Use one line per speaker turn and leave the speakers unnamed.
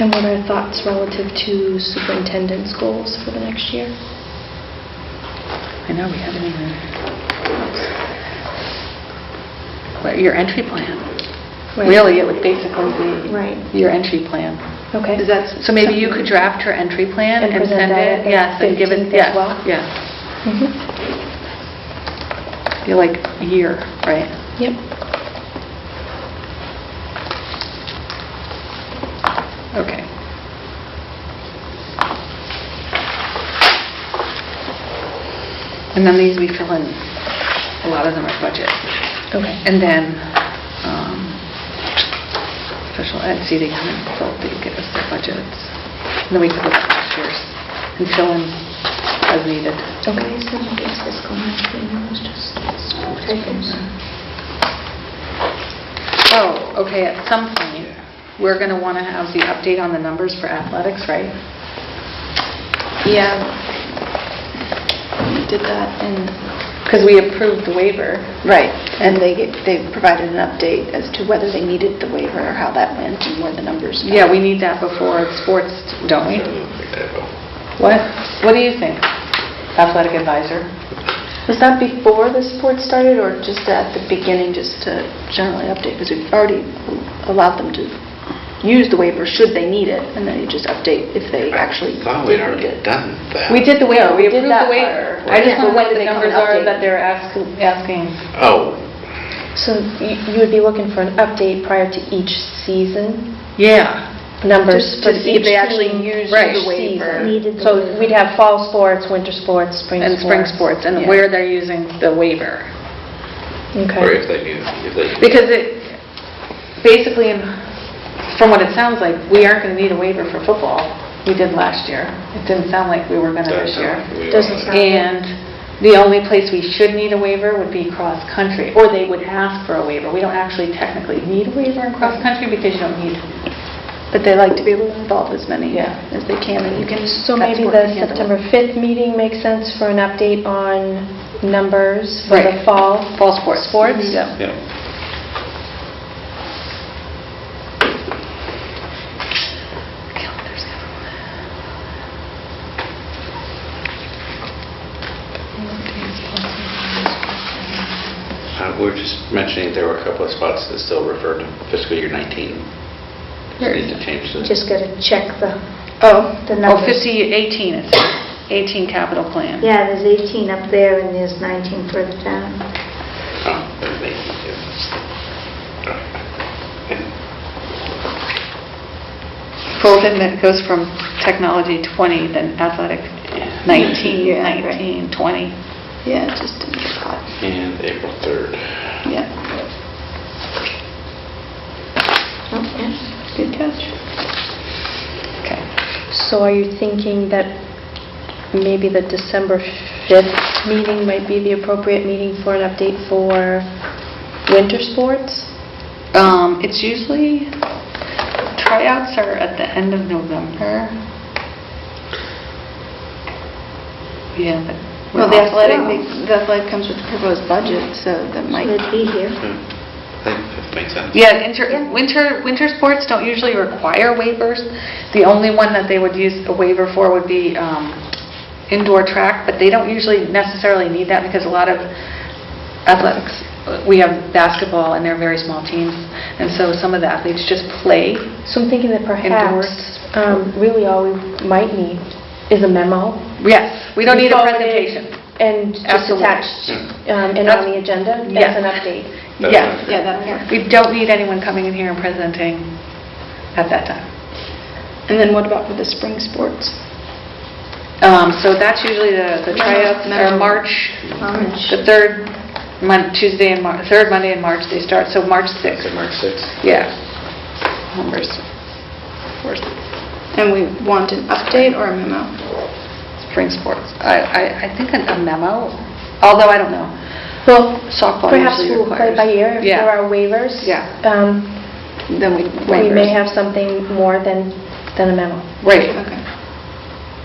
And what are thoughts relative to superintendent's goals for the next year?
I know, we haven't even... What, Your entry plan.
Right.
Really, it would basically be...
Right.
Your entry plan.
Okay.
Is that, so maybe you could draft your entry plan
And
and
present
send
that
it?
at the
Yes, and give
15th
it.
as
yes,
well?
Yes,
Mhm.
be like a year, right?
Yep.
Okay. And then these we fill in, a lot of them are budget.
Okay.
And then, um, special ed, see, they come and fill, they give us the budgets. And then we can look at last year's and fill in as needed.
Okay.
so I guess fiscal 19 was just...
Oh, okay, at some point, we're going to want to have the update on the numbers for athletics, right?
Yeah. We Did that and...
Because we approved the waiver.
Right, and they, get- they provided an update as to whether they needed the waiver or how that went and where the numbers... fell.
Yeah, we need that before sports, don't we? What, what do you think, athletic advisor?
Was that before the sport started or just at the beginning, just to generally update? Because we've already allowed them to use the waiver should they need it, and then you just update if they actually
I thought
did
we'd
need
already
it.
done that.
We did the waiver,
No, we
we
did
approved
that
the waiver.
part.
I just don't know
When
what
did
the
they come
numbers
and
are
update?
that they're ask- asking.
Oh,
So y- you would be looking for an update prior to each season,
Yeah.
numbers
Just
for
to see if
each
they actually
team
used
for
the
each
waiver.
season.
Needed the
So we'd have fall sports, winter sports, spring sports.
And spring sports, and
Yeah.
where they're using the waiver.
Okay.
or if they knew, if they knew.
Because it, basically, in- from what it sounds like, we aren't going to need a waiver for football. We did last year. It didn't sound like we were going to this year.
Doesn't sound-
And the only place we should need a waiver would be cross-country, or they would ask for a waiver. We don't actually technically need a waiver in cross-country because you don't need,
But they like to be able to involve as many
Yeah.
as they can, and you can...
So
that's
maybe
what
the
we handle.
September 5th meeting makes sense for an update on numbers for the
Right.
fall?
Fall sports.
Sports?
Mhm. Yeah.
Yeah. Uh, We were just mentioning there were a couple of spots that still refer to fiscal year 19. Just need to change the...
Just got to check the,
oh,
The
oh,
numbers.
50, 18, it's 18 capital plan.
yeah, there's 18 up there and there's 19 further down.
Oh, there's the 18, yeah.
Bolden that goes from technology 20, then athletic 19,
Yeah, right.
19, 20.
Yeah, it just didn't get caught.
And April 3rd.
Yeah. Good catch.
Okay.
So are you thinking that maybe the December 5th meeting might be the appropriate meeting for an update for winter sports?
Um, It's usually, tryouts are at the end of November. Yeah, but.
Well, the
we're all
athletic,
set.
the athletic comes with the proposed budget, so that might...
Should be here.
I think Hmm. that makes sense.
Yeah, inter-
Yeah.
winter, winter sports don't usually require waivers. The only one that they would use a waiver for would be um, indoor track, but they don't usually necessarily need that because a lot of athletics, we have basketball and they're very small teams, and so some of the athletes just play.
So I'm thinking that
Indoors.
perhaps, um, really all we might need is a memo.
Yes, we don't need a
Forward it
presentation.
And just
Absolutely.
attached um, and
That's-
on the agenda as
Yes.
an update.
That's
Yes.
fine.
Yeah, that'll work.
We don't need anyone coming in here and presenting at that time.
And then what about for the spring sports?
Um, So that's usually the the tryouts are
Memo.
March
Orange.
The third Mon, Tuesday in March, third Monday in March they start, so March 6th.
So March 6th.
Yeah. Numbers. Or
And we want an update or a memo?
Spring sports. I, I, I think a memo, although I don't know.
Well,
Softball
perhaps
usually
we'll play
requires-
by ear if
Yeah.
there are waivers.
Yeah.
Um,
Then we...
We may
waivers.
have something more than, than a memo.
Right.
Okay.